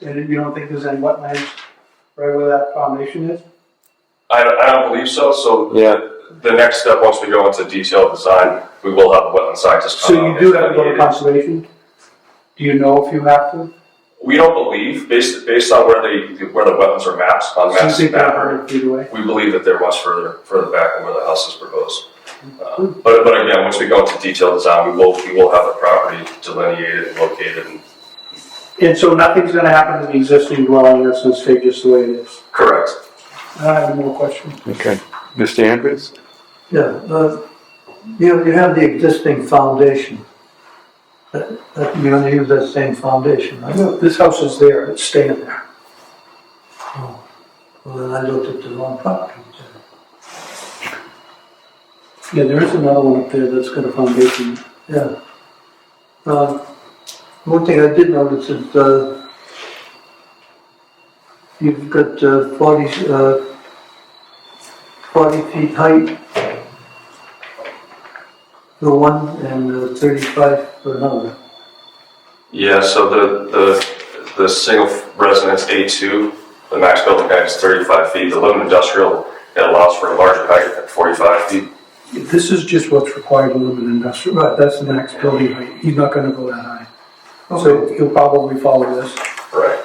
And you don't think there's any wetlands right where that foundation is? I don't, I don't believe so, so Yeah. the, the next step, once we go into detailed design, we will have a wetland scientist So come out. you and do have to go evaluate to it. conservation? Do you know if you have to? We don't believe, based, based on where the, where the wetlands are mapped, on Since maps, they've got a map, hundred feet away? we believe that they're much further, further back than where the house is proposed. Uh, But, but again, once we go into detailed design, we will, we will have the property delineated and located and And so nothing's gonna happen to the existing dwelling that's gonna stay just the way it is? correct. I have no question. Okay. Mr. Andrews? Yeah, uh, you, you have the existing foundation. That, that, you're gonna use that same foundation, right? This house is there, it's staying there. Well, then I looked at the wrong property. Yeah, there is another one up there that's got a foundation. Yeah. Um, one thing I did notice is, uh, you've got uh, forty, uh, forty feet height for one and uh, thirty-five for another. Yeah, so the, the, the single residence A2, the max building height is 35 feet. The limited industrial, it allows for a larger height at 45 feet. This is just what's required to limit industrial, right, that's the max building height, he's not gonna go that high. So he'll probably follow this. Right.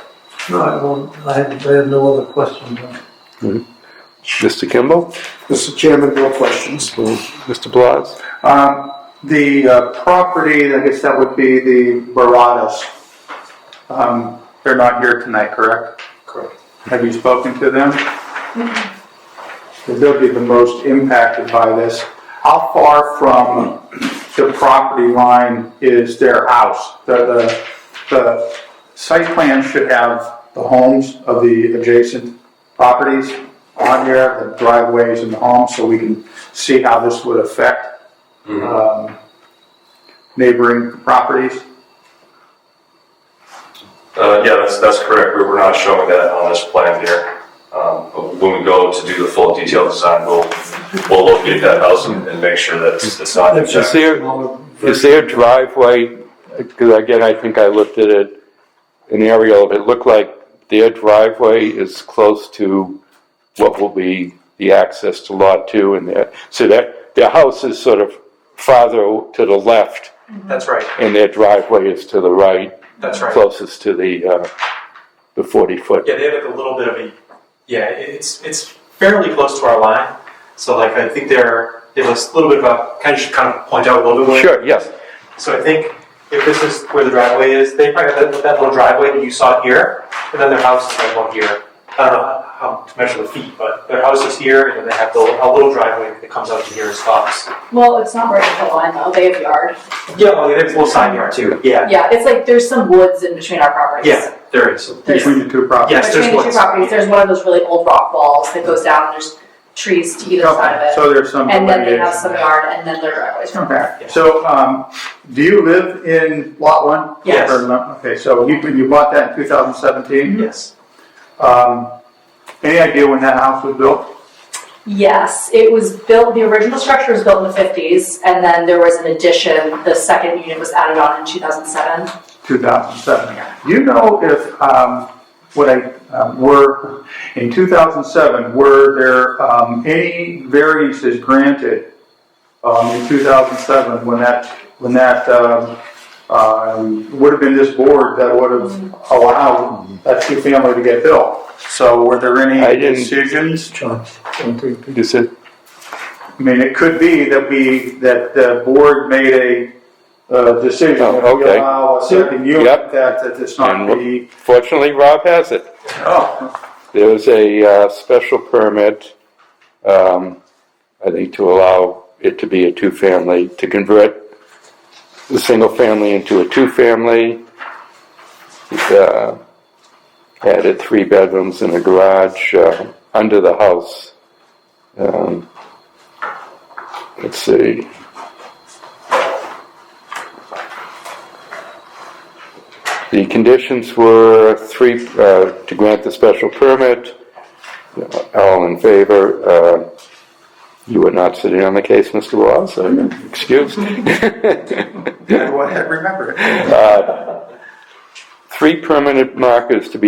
No, I won't, I have, I have no other questions on it. Mr. Kimball? Mr. Chairman, no questions. Mr. Blas? Um, The uh, property, I guess that would be the Baradas. Um, They're not here tonight, correct? Correct. Have you spoken to them? They'll be the most impacted by this. How far from the property line is their house? The, the, the site plan should have the homes of the adjacent properties on here, the driveways and the homes, so we can see how this would affect um, neighboring properties. Uh, yeah, that's, that's correct. We- We're not showing that on this plan here. Um, but When we go to do the full detailed design, we'll, we'll locate that house and and make sure that it's it's not Is impacted. there, is there driveway, because again, I think I looked at it, an aerial, it looked like their driveway is close to what will be the access to lot two and their, so that, their house is sort of farther to the left That's right, and their driveway is to the right, that's right. closest to the, uh, the forty foot. Yeah, they have like a little bit of a, yeah, it- it's, it's fairly close to our line. So like, I think they're, they have a little bit of a, kind of should kind of point out a little bit. where- Sure, yes, So I think if this is where the driveway is, they probably have that, that little driveway that you saw here, and then their house is like one here. I don't know how to measure the feet, but their house is here, and then they have the, a little driveway that comes out to here and stops. Well, it's not right at the line though, they have yard. Yeah, well, they have a little side yard too, yeah, Yeah, it's like there's some woods in between our properties. yeah, there is. There's- Between the two properties. Yes, there's Between the two woods. properties, there's one of those really old rock walls that goes down and there's trees to either side of it. So there's some. And then they have delineation some there. yard and then their driveways from there. Okay, so, um, do you live in lot one? Yes. Or no- Okay, so you, you bought that in two thousand seventeen? Yes. Mm-hmm. Um, any idea when that house was built? Yes, it was built, the original structure was built in the fifties and then there was an addition, the second unit was added on in two thousand seven. Two thousand seven. Do you know if, um, what I, um, were, in two thousand seven, were there, um, any variances granted, um, in two thousand seven, when that, when that, um, um, would have been this board that would have allowed that two-family to get built? So were there I any didn't- decisions? is it, I mean, it could be that we, that the board made a, uh, decision Oh, that we okay. allow a certain unit Yep. that, that it's And not what- the. fortunately, Rob has it. Oh, There was a uh, special permit, um, I think, to allow it to be a two-family, to convert the single-family into a two-family. Uh, Added three bedrooms and a garage uh, under the house. Um, Let's see. The conditions were three, uh, to grant the special permit, uh, all in favor. uh, You were not sitting on the case, Mr. Law, so you're excused. I remember it. Three permanent markers to be